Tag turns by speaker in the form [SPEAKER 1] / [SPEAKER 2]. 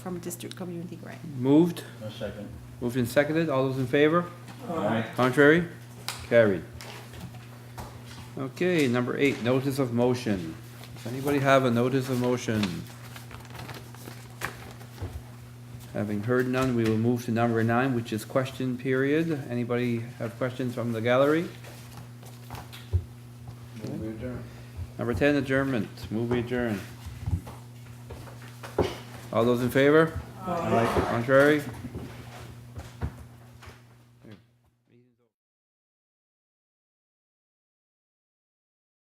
[SPEAKER 1] from district community grant.
[SPEAKER 2] Moved,
[SPEAKER 3] No second.
[SPEAKER 2] moved and seconded, all those in favor?
[SPEAKER 3] Aye.
[SPEAKER 2] Contrary? Carried. Okay, number eight, notice of motion. Does anybody have a notice of motion? Having heard none, we will move to number nine, which is question period. Anybody have questions from the gallery?
[SPEAKER 3] Move adjourned.
[SPEAKER 2] Number ten, adjournment. Move adjourn. All those in favor? Contrary?